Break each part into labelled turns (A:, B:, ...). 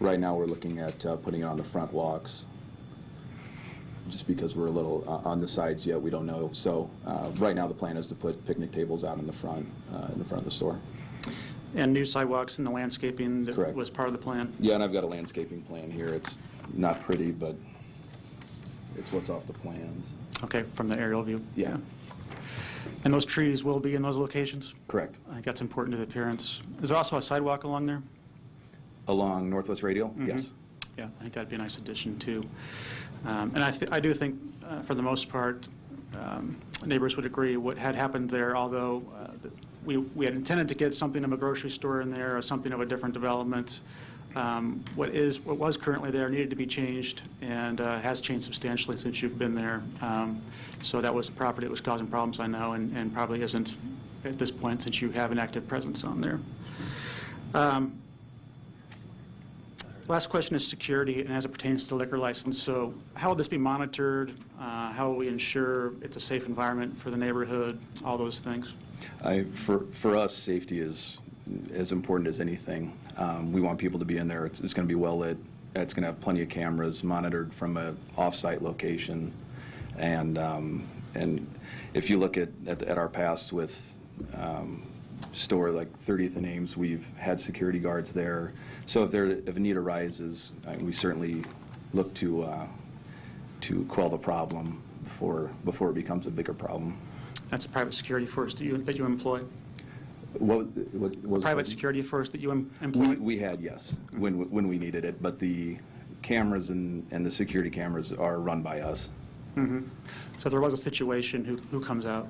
A: Right now, we're looking at uh, putting it on the front walks, just because we're a little uh, on the sides yet, we don't know. So uh, right now, the plan is to put picnic tables out in the front, uh, in the front of the store.
B: And new sidewalks and the landscaping that
A: Correct.
B: was part of the plan?
A: Yeah, and I've got a landscaping plan here. It's not pretty, but it's what's off the plans.
B: Okay, from the aerial view?
A: Yeah.
B: And those trees will be in those locations?
A: Correct.
B: I think that's important to the appearance. Is there also a sidewalk along there?
A: Along Northwest Radial?
B: Mm-hmm.
A: Yes.
B: Yeah, I think that'd be a nice addition, too. Um, And I thi- I do think, uh, for the most part, um, neighbors would agree what had happened there, although uh, th- we we had intended to get something of a grocery store in there or something of a different development. Um, What is, what was currently there needed to be changed and uh, has changed substantially since you've been there. Um, So that was a property that was causing problems, I know, and and probably isn't at this point since you have an active presence on there. Um, Last question is security, and as it pertains to the liquor license, so how will this be monitored? Uh, How will we ensure it's a safe environment for the neighborhood, all those things?
A: I, for, for us, safety is as important as anything. Um, we want people to be in there. It's, it's going to be well lit. It's going to have plenty of cameras monitored from a off-site location. And, um, and if you look at, at, at our past with um, store like 30th and Ames, we've had security guards there. So if there, if a need arises, I, we certainly look to, uh, to quell the problem before, before it becomes a bigger problem.
B: That's a private security force that you, that you employ?
A: What, what, what was
B: Private
A: the-
B: security force that you em-
A: We,
B: employ?
A: we had, yes, when, when we needed it, but the cameras and, and the security cameras are run by us.
B: Mhm. So if there was a situation, who, who comes out?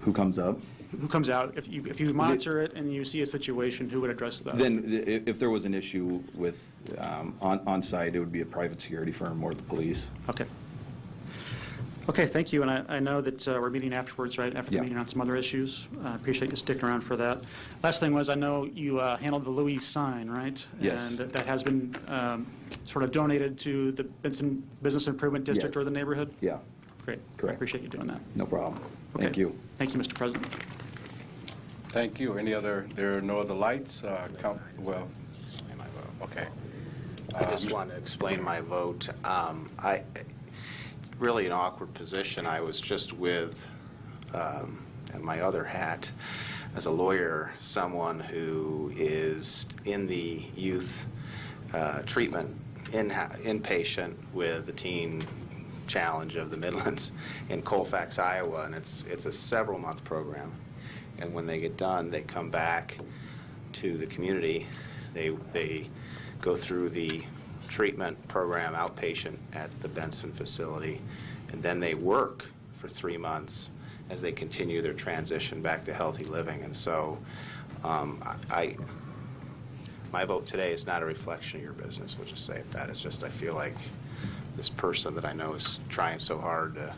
A: Who comes up?
B: Who comes out? If you, if you monitor it and you see a situation, who would address that?
A: Then, i- if, if there was an issue with, um, on, on-site, it would be a private security firm or the police.
B: Okay. Okay, thank you, and I, I know that uh, we're meeting afterwards, right, after the
A: Yeah.
B: meeting on some other issues. I appreciate you sticking around for that. Last thing was, I know you uh, handled the Louis sign, right?
A: Yes.
B: And that- that has been um, sort of donated to the Benson Business Improvement District
A: Yes.
B: or the neighborhood?
A: Yeah,
B: Great.
A: Correct.
B: Appreciate you doing that.
A: no problem.
B: Okay.
A: Thank you.
B: Thank you, Mr. President.
C: Thank you. Any other, there are no other lights? Uh, count- Well,
D: Explain my vote.
C: okay.
D: I just want to explain my vote. Um, I, it's really an awkward position. I was just with, um, in my other hat, as a lawyer, someone who is in the youth uh, treatment in inpatient with the teen challenge of the Midlands in Colfax, Iowa, and it's, it's a several-month program. And when they get done, they come back to the community. They, they go through the treatment program outpatient at the Benson facility, and then they work for three months as they continue their transition back to healthy living. And so um, I, my vote today is not a reflection of your business, we'll just say it that. It's just I feel like this person that I know is trying so hard to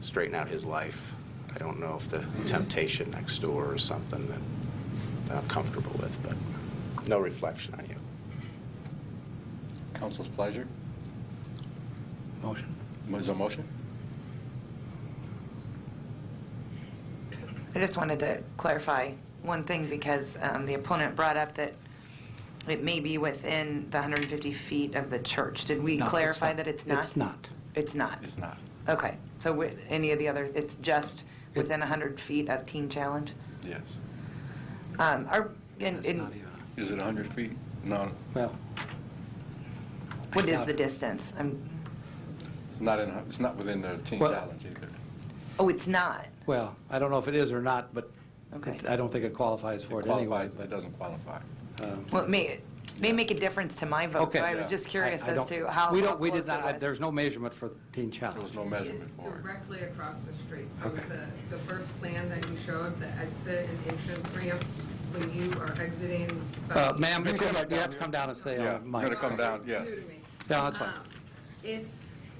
D: straighten out his life. I don't know if the temptation next door is something that I'm comfortable with, but no reflection on you.
C: Council's pleasure?
D: Motion.
C: Is there a motion?
E: I just wanted to clarify one thing because um, the opponent brought up that it may be within the 150 feet of the church. Did we
D: No, it's
E: clarify
D: not.
E: that it's not?
D: It's not.
E: It's not?
C: It's not.
E: Okay. So with any of the other, it's just within 100 feet of Teen Challenge?
C: Yes.
E: Um, Our, and,
D: It's not
E: and
D: even-
C: Is it 100 feet? No,
D: Well. I
E: what is
D: doubt
E: the
D: it.
E: distance? I'm,
C: it's not in, it's not within the teen
F: Well-
C: challenge either.
E: oh, it's not?
F: Well, I don't know if it is or not, but
E: Okay.
F: I don't think it qualifies for
C: It
F: it anyway.
C: qualifies,
F: but,
C: it doesn't qualify.
F: um,
E: Well, it may, it may make a difference to my vote,
F: Okay.
E: so I was
C: Yeah.
E: just
F: I-
E: curious
F: I
E: as
F: don't-
E: to how
F: We
E: how
F: don't, we
E: close
F: did
E: it
F: not, I-
E: was.
F: there's no measurement for Teen
C: There was
F: Challenge.
C: no measurement for it.
G: Directly across the street from
F: Okay.
G: the, the first plan that you showed, the exit and entrance ramp, when you are exiting.
F: Uh,
G: the-
F: Ma'am, you come- you have to come down and say
C: Yeah,
F: on the
C: you gotta
F: mic.
C: come down, yes.
G: New to me.
F: No, that's fine.
G: Um, If,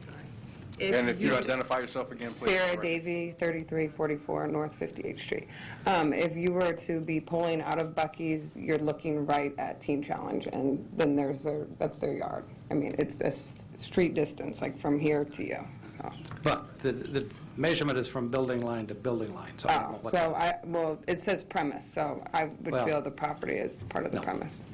G: sorry.
C: And if you
G: d-
C: identify yourself again, please.
H: Sarah Davy, 3344 North 58th Street. Um, If you were to be pulling out of Bucky's, you're looking right at Teen Challenge, and then there's their, that's their yard. I mean, it's a s- street distance, like from here to you, so.
F: But the, the measurement is from building line to building line, so I don't know
H: Oh,
F: what.
H: so I, well, it says premise, so I would
F: Well-
H: feel the property is part of the
F: No.
H: premise.